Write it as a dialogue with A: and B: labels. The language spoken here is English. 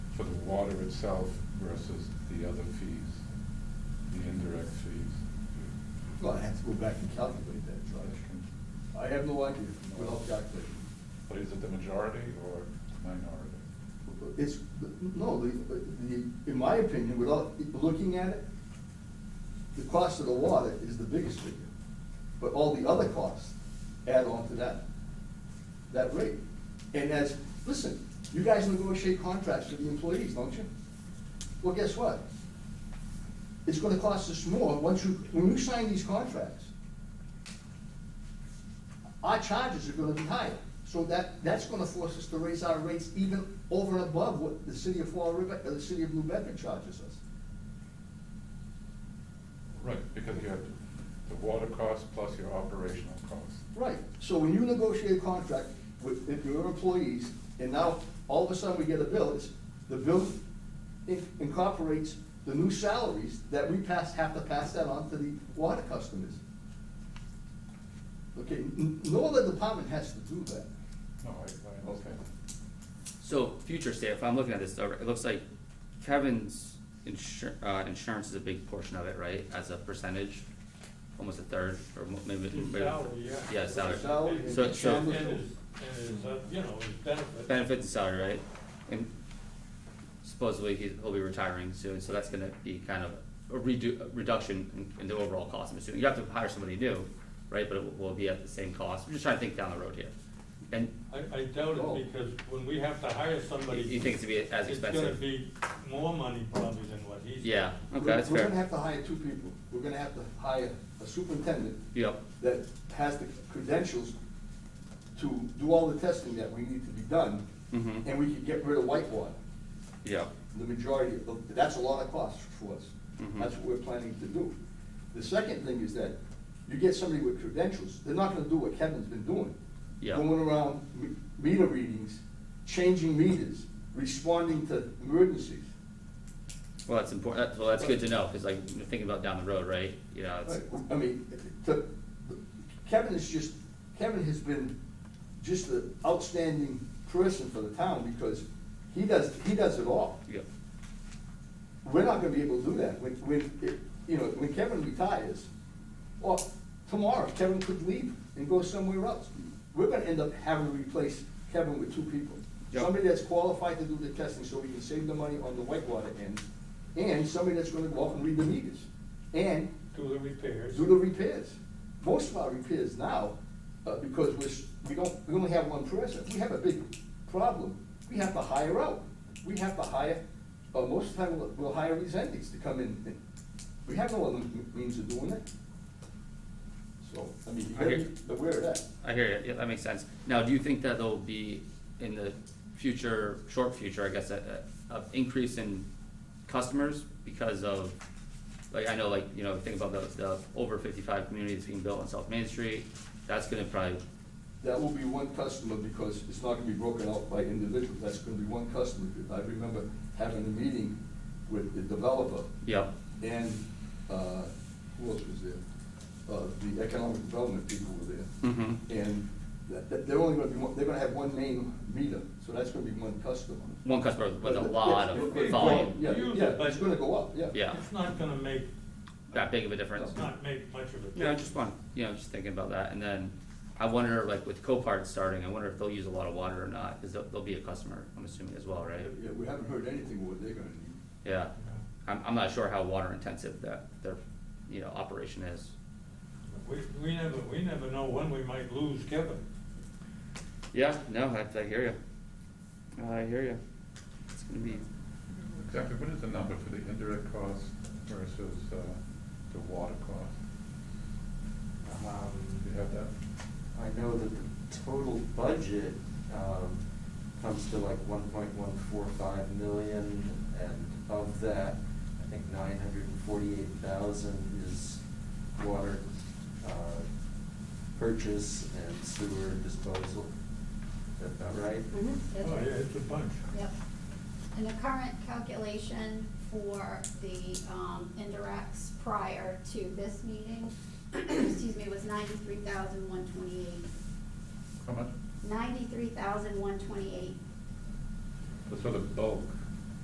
A: for the water itself versus the other fees, the indirect fees.
B: Well, I have to go back and calculate that, Josh. I have no idea without calculating.
A: But is it the majority or minority?
B: It's, no, the, the, in my opinion, without looking at it, the cost of the water is the biggest figure. But all the other costs add on to that, that rate. And as, listen, you guys negotiate contracts with the employees, don't you? Well, guess what? It's gonna cost us more once you, when you sign these contracts. Our charges are gonna be higher, so that, that's gonna force us to raise our rates even over and above what the city of Fall River, uh, the city of New Bedford charges us.
A: Right, because you have the water cost plus your operational cost.
B: Right, so when you negotiate a contract with, with your employees, and now all of a sudden we get a bill, it's, the bill in- incorporates the new salaries that we pass, have to pass that on to the water customers. Okay, n- no other department has to do that.
A: No, I, I understand.
C: So future state, if I'm looking at this, uh, it looks like Kevin's insur- uh, insurance is a big portion of it, right, as a percentage? Almost a third or mo- maybe.
D: His
C: maybe-
D: salary, yeah.
C: Yeah, salary.
B: Salary and
C: So- so-
D: And his, and his, uh, you know, his benefit.
C: Benefits and salary, right? And supposedly he, he'll be retiring soon, so that's gonna be kind of a redo, a reduction in, in the overall cost, I'm assuming. You have to hire somebody new, right, but it will- will be at the same cost. I'm just trying to think down the road here. And
D: I, I doubt
B: Oh.
D: it, because when we have to hire somebody.
C: you think it's gonna be as
D: It's gonna
C: expensive?
D: be more money probably than what he's.
C: Yeah, okay,
B: We're-
C: that's
B: We're gonna
C: fair.
B: have to hire two people. We're gonna have to hire a superintendent
C: Yep,
B: that has the credentials to do all the testing that we need to be done,
C: Mhm.
B: and we could get rid of whitewater.
C: yep,
B: The majority, of- that's a lot of cost for us.
C: Mhm.
B: That's what we're planning to do. The second thing is that you get somebody with credentials, they're not gonna do what Kevin's been doing.
C: Yeah.
B: Going around me- meter readings, changing meters, responding to emergencies.
C: well, that's important, that's, well, that's good to know, cause like, you're thinking about down the road, right, you know, it's,
B: I mean, to, Kevin is just, Kevin has been just an outstanding person for the town because he does, he does it all.
C: yep,
B: We're not gonna be able to do that. When, when, it- you know, when Kevin retires, or tomorrow, Kevin could leave and go somewhere else. We're gonna end up having to replace Kevin with two people.
C: Yep.
B: Somebody that's qualified to do the testing so we can save the money on the whitewater end, and somebody that's gonna go out and read the meters, and
D: Do the repairs.
B: do the repairs. Most of our repairs now, uh, because we're, s- we don't, we only have one person, if we have a big problem, we have to hire out. We have to hire, uh, most of the time, we'll, we'll hire these entities to come in, and we have no other m- means of doing it. So, I mean, you gotta
C: Okay.
B: be aware of that.
C: I hear you, yeah, that makes sense. Now, do you think that there'll be in the future, short future, I guess, a, a, a increase in customers because of, like, I know, like, you know, think about the, the over fifty-five communities being built on South Main Street, that's gonna probably,
B: That will be one customer, because it's not gonna be broken out by individual, that's gonna be one customer. I remember having a meeting with the developer,
C: yep,
B: And, uh, who else was there? Uh, the economic development people were there.
C: mm-hmm,
B: And that, that, they're only gonna be, one- they're gonna have one main meter, so that's gonna be one customer.
C: one customer with a
B: But the-
C: lot
B: yeah,
C: of
B: it- it-
C: volume,
B: Yeah,
D: Use
B: yeah,
D: it, but-
B: it's gonna go up, yeah.
C: yeah,
D: It's not gonna make,
C: that big of a difference.
D: it's not make much of a difference.
C: Yeah, I just want, you know, just thinking about that, and then I wonder, like, with Copart starting, I wonder if they'll use a lot of water or not, because they'll, they'll be a customer, I'm assuming as well, right?
B: Yeah, we haven't heard anything what they're gonna need.
C: Yeah, I'm, I'm not sure how water intensive that their, you know, operation is.
D: We, we never, we never know when we might lose Kevin.
C: Yeah, no, I, I hear you. I hear you. It's gonna be,
A: Exactly, what is the number for the indirect cost versus, uh, the water cost? Do you
E: Um,
A: have that?
E: I know that the total budget, um, comes to like one point one four five million, and of that, I think nine hundred and forty-eight thousand is water, uh, purchase and sewer disposal. Is that about right?
F: Mhm, that's
D: Oh,
F: right.
D: yeah, it's a bunch.
F: Yep. And the current calculation for the um, indirects prior to this meeting, excuse me, was ninety-three thousand one twenty-eight.
A: How much?
F: Ninety-three thousand one twenty-eight.
A: That's for the bulk,